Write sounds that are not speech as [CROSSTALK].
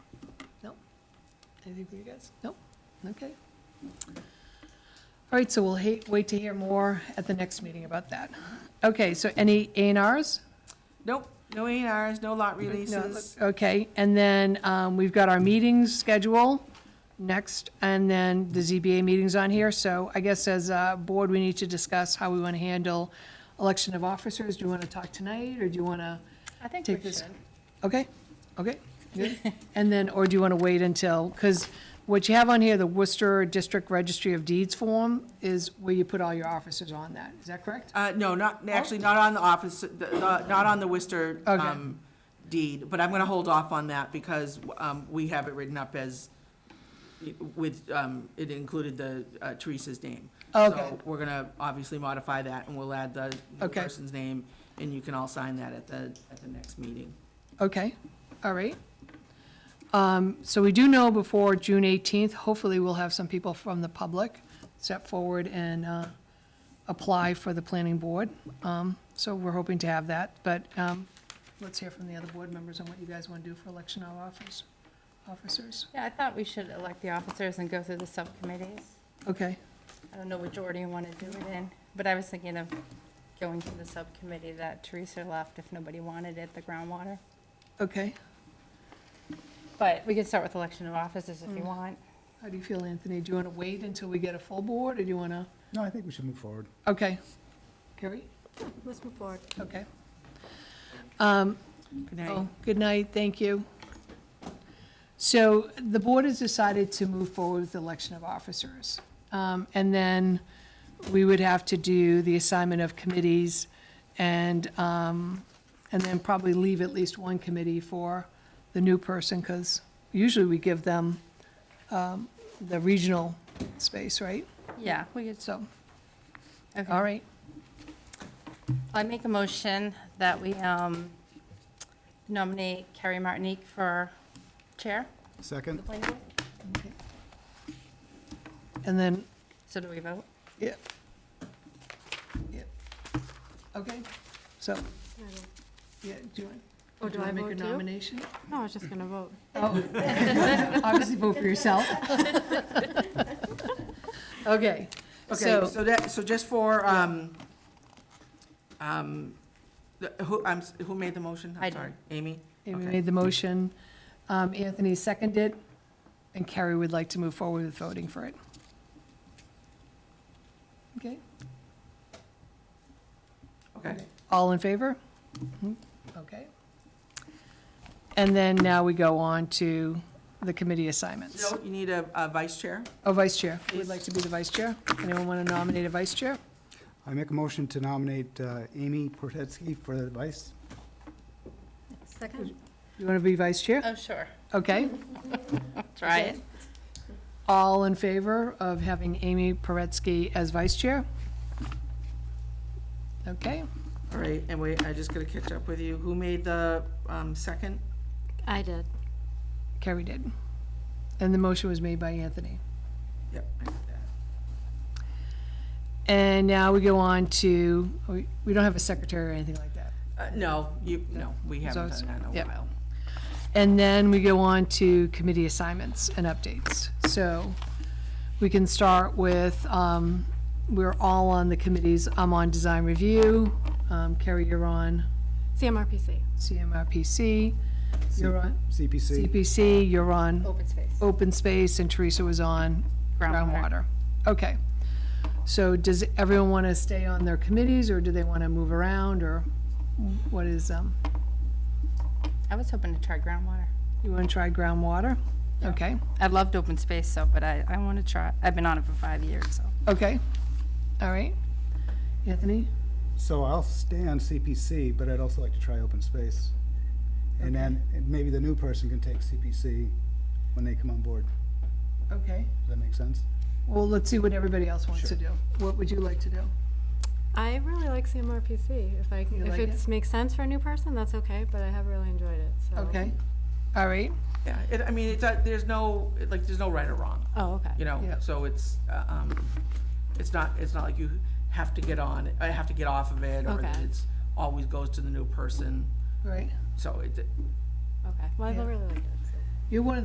Anything for you guys? Nope? Okay. All right, so we'll ha- wait to hear more at the next meeting about that. Okay, so any A and Rs? Nope, no A and Rs, no lot releases. Okay, and then um, we've got our meetings schedule next, and then the ZBA meeting's on here. So I guess as a board, we need to discuss how we want to handle election of officers. Do you want to talk tonight, or do you want to? I think Take we this. should. Okay, okay, good. And then, or do you want to wait until, because what you have on here, the Worcester District Registry of Deeds form, is where you put all your officers on that, is that correct? Uh, no, not, actually, not on the office, the- the- not on the Worcester Okay. um, deed, but I'm going to hold off on that because um, we have it written up as, with, um, it included the uh, Teresa's name. Okay. So we're going to obviously modify that, and we'll add the the Okay. person's name, and you can all sign that at the, at the next meeting. Okay, all right. Um, So we do know before June eighteenth, hopefully we'll have some people from the public step forward and uh, apply for the planning board. Um, So we're hoping to have that, but um, let's hear from the other board members on what you guys want to do for election of office- officers. Yeah, I thought we should elect the officers and go through the subcommittees. Okay. I don't know which order you want to do it in, but I was thinking of going to the subcommittee that Teresa left if nobody wanted it, the groundwater. Okay, But we could start with election of officers if you Mm. want. how do you feel, Anthony? Do you want to wait until we get a full board, or do you want to, No, I think we should move forward. okay. Carrie? Let's move forward. Okay. Um, Good night. oh, Good night, thank you. So the board has decided to move forward with the election of officers. Um, And then we would have to do the assignment of committees and, um, and then probably leave at least one committee for the new person, because usually we give them um, the regional space, right? Yeah, we could, So, okay. all right, I make a motion that we um, nominate Carrie Martinique for chair of Second? the planning board. and then, So do we vote? yeah. Yeah. Okay, so, yeah, do you want? Oh, do I wanna vote Make a too? nomination? No, I was just gonna vote. Oh, [LAUGHS] Obviously vote for [LAUGHS] yourself. Okay, Okay, so- so that, so just for, um, um, the- who, I'm, s- who made the motion? I I'm did. sorry, Amy? Amy Okay. made the motion, um, Anthony seconded, and Carrie would like to move forward with voting for it. Okay, Okay. all in favor? Mhm, Okay. And then now we go on to the committee assignments. No, you need a, a vice chair? Oh, vice chair, who would like to be the vice chair? Anyone want to nominate a vice chair? I make a motion to nominate uh, Amy Portetsky for the vice. Second? You want to be vice chair? Oh, [LAUGHS] sure. Okay. Try it. All in favor of having Amy Paretsky as vice chair? Okay, All right, and wait, I just gotta catch up with you. Who made the, um, second? I did. Carrie did. And the motion was made by Anthony. Yep. I did that. And now we go on to, we we don't have a secretary or anything like that. Uh, no, you, no, we haven't it's- done that in a yep. while. And then we go on to committee assignments and updates. So we can start with, um, we're all on the committees. I'm on design review. Um, Carrie, you're on CMRPC. CMRPC. You're on? CPC. CPC, you're on Open space. open space, and Teresa was on groundwater. Groundwater. Okay. So does everyone want to stay on their committees, or do they want to move around, or what is, um, I was hoping to try groundwater. you want to try groundwater? Okay, I loved open space, so, but I, I want to try, I've been on it for five years, so. okay, all right. Anthony? So I'll stay on CPC, but I'd also like to try open space. And then and maybe the new person can take CPC when they come on board. Okay. Does that make sense? Well, let's see what everybody else wants to do. What would you like to do? I really like CMRPC. If I, You if like it makes sense for a new person, that's okay, but I have really enjoyed it, so. Okay, all right, Yeah, it, I mean, it's, uh, there's no, like, there's no right or wrong, Oh, okay. you know? Yeah. So it's, uh, um, it's not, it's not like you have to get on, I have to get off of it, or Okay. that it's, always goes to the new person. all right. So it, Okay. Well, I Yeah. really liked it, so. You're one of